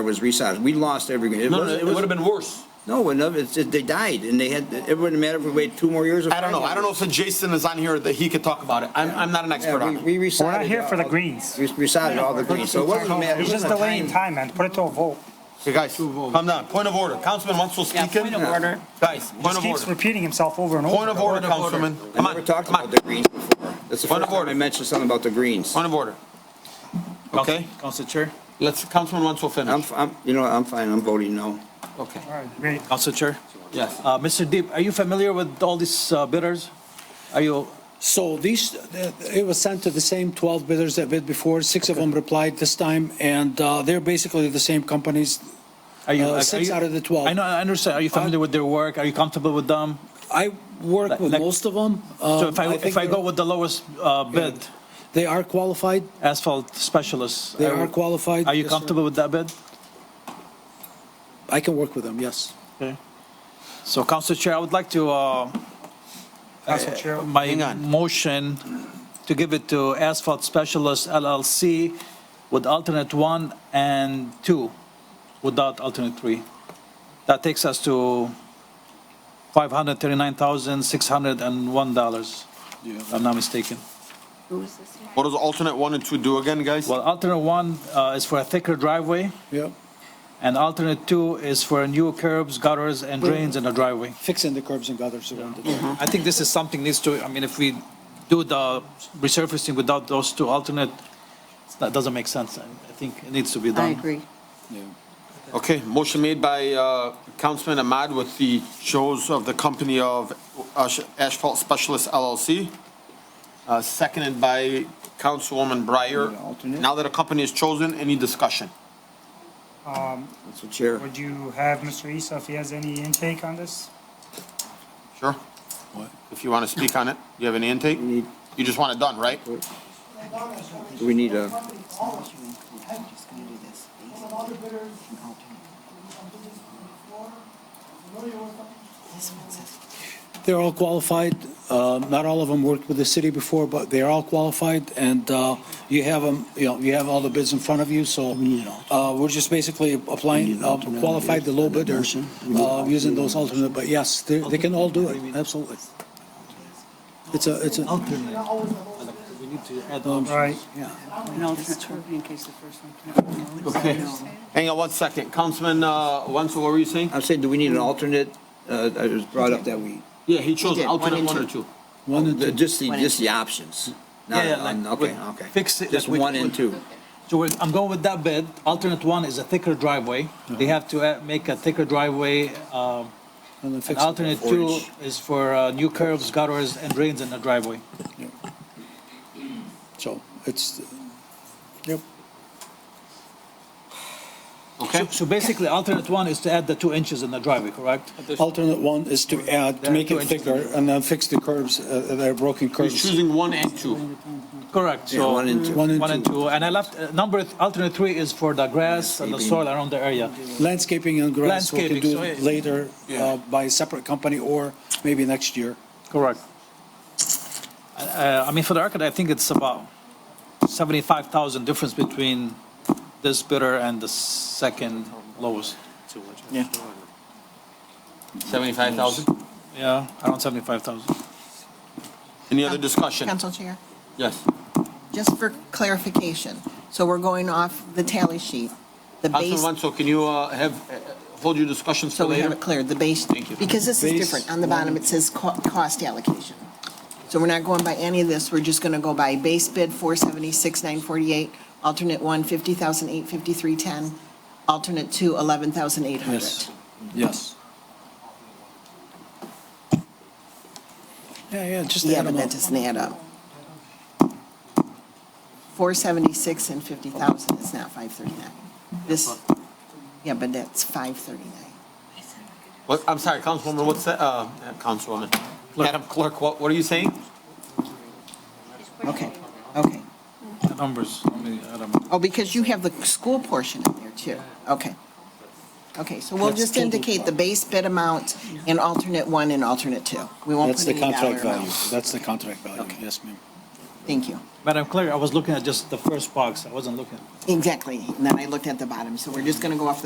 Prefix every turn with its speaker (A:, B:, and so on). A: was resized. We lost every, it
B: No, no,
A: was,
B: it would have been worse.
A: no, enough, it's, it- they died, and they had, it wouldn't matter if we waited two more years. or
B: I don't know.
A: five
B: I don't know
A: years.
B: if Jason is on here that he could talk about it. I'm, I'm not an expert
A: Yeah,
B: on it.
A: we, we resided.
C: We're not here for the
A: all-
C: greens.
A: We resided all the greens, so it wasn't a matter.
C: It's just delaying time, man. Put it to a vote.
B: Okay, guys, calm down. Point of order. Councilman Wenzel
D: Yeah,
B: speaking.
D: point of order.
B: Guys, point
C: Just
B: of
C: keeps
B: order.
C: repeating himself over and over.
B: Point of order, Councilman.
A: I
B: Come
A: never
B: on,
A: talked
B: come
A: about
B: on.
A: the greens before. That's the
B: Point
A: first
B: of
A: time
B: order.
A: I mentioned something about the greens.
B: Point of order. Okay,
E: Council Chair,
B: let's, Councilman Wenzel
A: I'm,
B: finish.
A: f- I'm, you know, I'm fine, I'm voting no.
B: Okay,
C: All right, great.
E: Council Chair,
B: yes.
E: uh, Mr. Deep, are you familiar with all these uh, bidders? Are you,
F: So these, it was sent to the same 12 bidders that bid before, six of them replied this time, and uh, they're basically the same companies.
E: are you? are
F: Uh, six
E: you-
F: out of the Uh, 12.
E: I know, I understand. Are you familiar with their work? Are you comfortable with them?
F: I work with
E: Like-
F: most of them.
E: So if I,
F: Um, think
E: if I go with the lowest uh, bid,
F: They are qualified,
E: asphalt specialists.
F: they are qualified.
E: Are you
F: Yes, sir.
E: comfortable with that bid?
F: I can work with them, yes.
E: So Council Chair, I would like to, uh,
C: Council Chair.
B: Hang
E: my
B: on.
E: motion to give it to Asphalt Specialist LLC with alternate one and two, without alternate three. That takes us to $539,601, if I'm not mistaken.
B: What does alternate one and two do again, guys?
E: Well, alternate one uh, is for a thicker driveway,
F: Yeah,
E: and alternate two is for new curbs, gutters, and drains in the driveway.
F: fixing the curbs and gutters around it.
E: I think this is something needs to, I mean, if we do the resurfacing without those two alternate, that doesn't make sense. I I think it needs to be done.
D: I agree.
B: Okay, motion made by uh, Councilman Ahmad with the shows of the company of Ash- Asphalt Specialist LLC, uh, seconded by Councilwoman Breyer. Now that a company is chosen, any discussion?
A: That's the chair.
C: Would you have Mr. Issa if he has any intake on this?
B: Sure? If you want to speak on it, you have any intake?
A: We need,
B: You just want it done, right?
A: do we need a,
F: They're all qualified. Uh, Not all of them worked with the city before, but they're all qualified, and uh, you have them, you know, you have all the bids in front of you, so uh, we're just basically applying, uh, qualified the low bidder, uh, using those alternate, but yes, they they can all do it, absolutely. It's a, it's a,
E: Alternate. We need to add
C: All right,
D: An alternate in case the first one.
B: Okay. Hang on one second. Councilman uh, Wenzel, what were you saying?
A: I'm saying, do we need an alternate? Uh, it was brought up that we,
B: Yeah, he chose
D: did, one
B: alternate
D: and
B: one or
D: two.
B: two.
F: one and two.
A: just the, just the options. Not,
E: Yeah, yeah,
A: on-
E: like
A: Um, okay,
E: with-
A: okay.
E: fix it,
A: Just
E: like with-
A: one and two.
E: So we're- I'm going with that bid. Alternate one is a thicker driveway. They have to add- make a thicker driveway. um,
F: and then
E: And
F: fix it.
E: alternate two is for uh, new curves, gutters, and drains in the driveway.
F: So it's, yep.
B: Okay?
E: So basically, alternate one is to add the two inches in the driveway, correct?
F: Alternate one is to add, to make it thicker, and then fix the curbs, uh, that are broken
B: He's
F: curbs.
B: choosing one and two.
E: Correct,
A: Yeah,
E: so.
A: one and two.
F: One and
E: One and
F: two.
E: two, and I left, uh, number, th- alternate three is for the grass and the soil around the area.
F: Landscaping and grass, we can
E: Landscaping,
F: do
E: so, yeah.
F: it later uh, by a separate company or maybe next year.
E: Correct. Uh, I mean, for the record, I think it's about 75,000 difference between this bidder and the second lowest.
B: Seventy-five thousand?
E: Yeah, around 75,000.
B: Any other discussion?
G: Council Chair,
B: Yes.
G: just for clarification, so we're going off the tally sheet. The
B: Councilman
G: base,
B: Wenzel, can you uh, have, uh, hold your discussions
G: so
B: till
G: we have
B: later?
G: it cleared, the base,
B: Thank you.
G: because this is
F: Base,
G: different. On the bottom, it says co- cost allocation. So we're not going by any of this, we're just going to go by base bid 476, 948, alternate one, 50,853.10, alternate two, 11,800.
F: Yes. Yes. Yeah, yeah, just
G: Yeah,
F: add
G: but
F: them
G: that
F: up.
G: doesn't add up. 476 and 50,000 is not 539. This, yeah, but that's 539.
B: What, I'm sorry, Councilwoman, what's that, uh, uh, Councilwoman? Madam Clerk, what, what are you saying?
G: Okay, okay.
E: The Numbers, I mean, I don't know.
G: Oh, because you have the school portion in there too. Okay. Okay, so we'll just indicate the base bid amount in alternate one and alternate two. We won't
F: That's
G: put
F: the
G: any
F: contract
G: dollar
F: value.
G: amount.
F: That's the contract value. Yes, ma'am.
G: Thank you.
E: Madam Clerk, I was looking at just the first box. I wasn't looking.
G: Exactly. And then I looked at the bottom, so we're just going to go off the